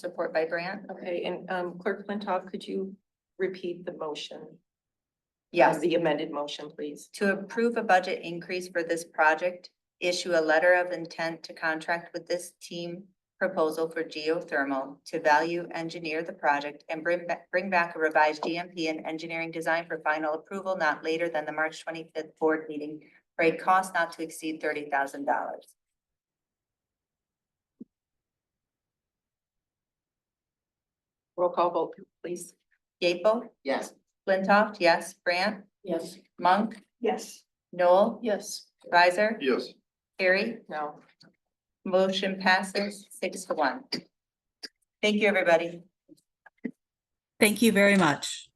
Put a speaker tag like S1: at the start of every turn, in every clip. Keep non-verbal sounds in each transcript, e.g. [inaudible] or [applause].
S1: Support by Brant?
S2: Okay, and um, Clerk Flintoff, could you repeat the motion?
S1: Yes.
S2: The amended motion, please.
S1: To approve a budget increase for this project, issue a letter of intent to contract with this team proposal for geothermal to value engineer the project and bring back, bring back a revised GMP and engineering design for final approval not later than the March twenty-fifth board meeting for a cost not to exceed thirty thousand dollars.
S2: Roll call vote, please.
S1: Gable,
S3: Yes.
S1: Flintoff, yes, Brant,
S2: Yes.
S1: Monk,
S2: Yes.
S1: Noel,
S2: Yes.
S1: Riser,
S3: Yes.
S1: Harry.
S2: No.
S1: Motion passes six to one. Thank you, everybody.
S4: Thank you very much.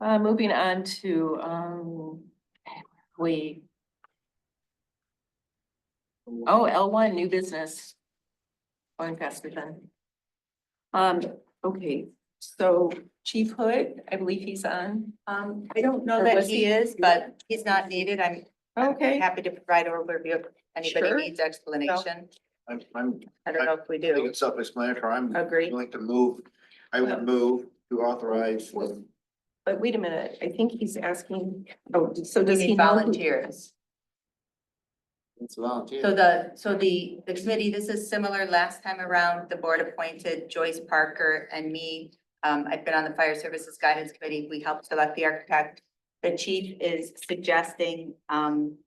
S2: Uh, moving on to um, we. Oh, L one, new business. Going faster than. Um, okay, so Chief Hood, I believe he's on.
S1: Um, I don't know
S2: Or
S1: that
S2: was
S1: he
S2: he-
S1: is, but he's not needed. I'm I'm
S2: Okay.
S1: happy to provide overview if anybody
S2: Sure.
S1: needs explanation.
S3: I'm, I'm,
S1: I don't know if we
S3: I think
S1: do.
S3: it's self-explanatory. I'm
S1: Agree.
S3: willing to move, I
S2: Well-
S3: would move to authorize.
S2: But wait a minute, I think he's asking, oh, so
S1: We
S2: does he
S1: need
S2: know? who-
S1: volunteers.
S3: It's volunteer.
S1: So the, so the, the committee, this is similar last time around, the board appointed Joyce Parker and me. Um, I've been on the Fire Services Guidance Committee. We helped select the architect. The chief is suggesting, um,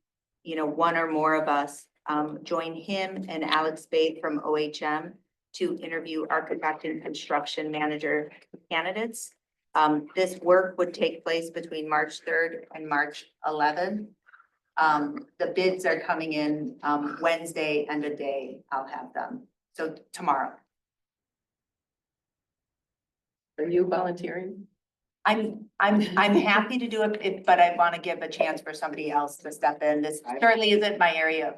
S1: you know, one or more of us, um, join him and Alex Bate from OHM to interview architect and construction manager candidates. Um, this work would take place between March third and March eleventh. Um, the bids are coming in, um, Wednesday and a day, I'll have them, so tomorrow.
S2: Are you volunteering?
S1: I'm, I'm, I'm happy to do it, if- but I want to give a chance for somebody else to step in, this certainly isn't my area. of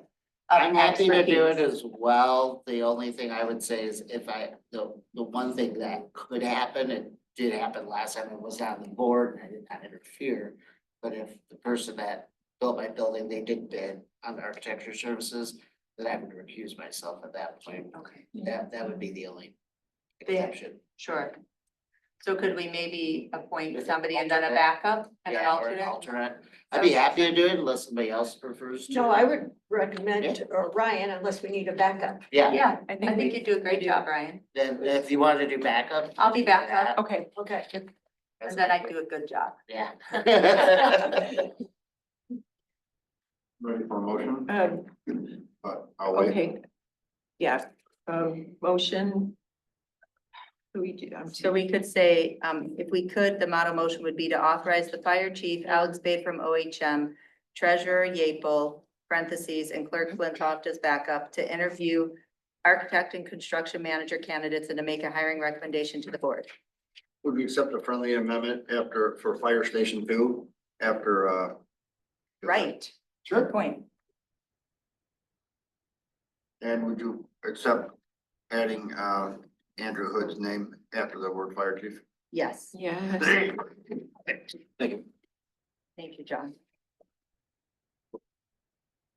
S5: I'm happy to do it
S1: expertise.
S5: as well. The only thing I would say is if I, the, the one thing that could happen, it did happen last time I was on the board and I did not interfere. But if the person that built my building, they did bid on the architecture services, then I would recuse myself at that point.
S1: Okay,
S5: That, that would be the only
S1: They-
S5: exception.
S1: sure. So could we maybe appoint somebody and then a
S5: Alternate.
S1: backup and an
S5: Yeah, or
S1: alternate?
S5: Alternate. I'd be happy to do it unless somebody else prefers to.
S6: No, I would recommend or Ryan unless we need a backup.
S5: Yeah,
S1: Yeah,
S2: I
S1: I think you'd do a great job, Ryan.
S5: then if you wanted to do backup.
S1: I'll be backup
S2: Okay,
S6: Okay.
S1: and then I do a good job.
S5: [laughs] Yeah.
S3: Ready for a motion?
S2: um,
S3: But I'll wait.
S2: okay. Yeah, um, motion. Do we do, I'm
S1: So we could say, um, if we could, the model motion would be to authorize the fire chief, Alex Bay from OHM, treasurer Yeaple, parentheses, and clerk Flintoff as backup to interview architect and construction manager candidates and to make a hiring recommendation to the board.
S3: Would we accept a friendly amendment after, for fire station two, after, uh?
S1: Right, good
S3: Sure.
S1: point.
S3: And would you accept adding, uh, Andrew Hood's name after the word fire chief?
S1: Yes,
S2: Yes.
S3: Thank you.
S1: thank you, John.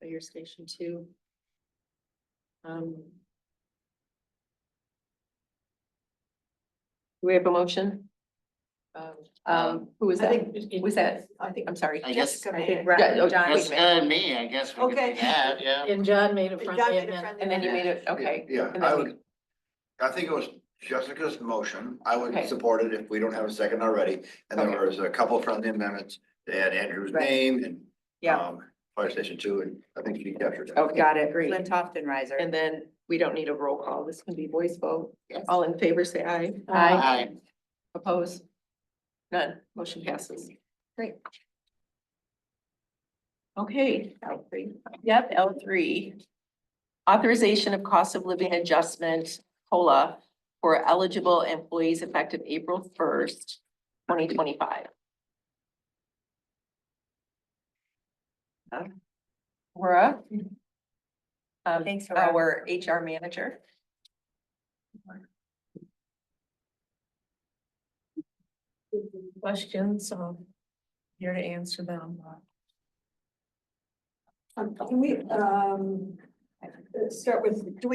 S2: Fire Station Two. Um. Do we have a motion? Um, Um, who was
S6: I
S2: that?
S6: think-
S2: Who Was that,
S6: I think.
S2: I'm sorry.
S5: I guess,
S6: Jessica
S2: I
S6: made
S2: think
S6: it.
S2: Ra-
S1: Yeah,
S2: oh,
S1: John-
S5: that's
S2: wait a minute.
S5: kind of me, I guess we could
S6: Okay.
S5: do that, yeah.
S7: And John made a
S6: John
S7: friendly
S6: made a
S7: amendment.
S6: friendly
S2: And then you
S6: amendment.
S2: made it, okay.
S3: Yeah,
S2: And
S3: I
S2: then
S3: would, I think it was Jessica's motion. I
S2: Okay.
S3: would support it if we don't have a second already. And then
S2: Okay.
S3: there's a couple friendly amendments to add Andrew's
S1: Right.
S3: name and.
S1: Yeah.
S3: um, Fire station two, and I think she captured it.
S2: Okay,
S1: Got it.
S2: great.
S1: Flintoff and Riser.
S2: And then we don't need a roll call. This can be voice vote.
S5: Yes.
S2: All in favor, say aye.
S7: Aye.
S5: Aye.
S2: Oppose? None. Motion passes. Great. Okay, L three. Yep, L three. Authorization of cost of living adjustment, COLA, for eligible employees effective April first, twenty twenty-five. Uh, Laura? Um,
S1: Thanks, Laura.
S2: our HR manager.
S7: Questions, so here to answer them. uh,
S6: Um, Can we, um, start with, do we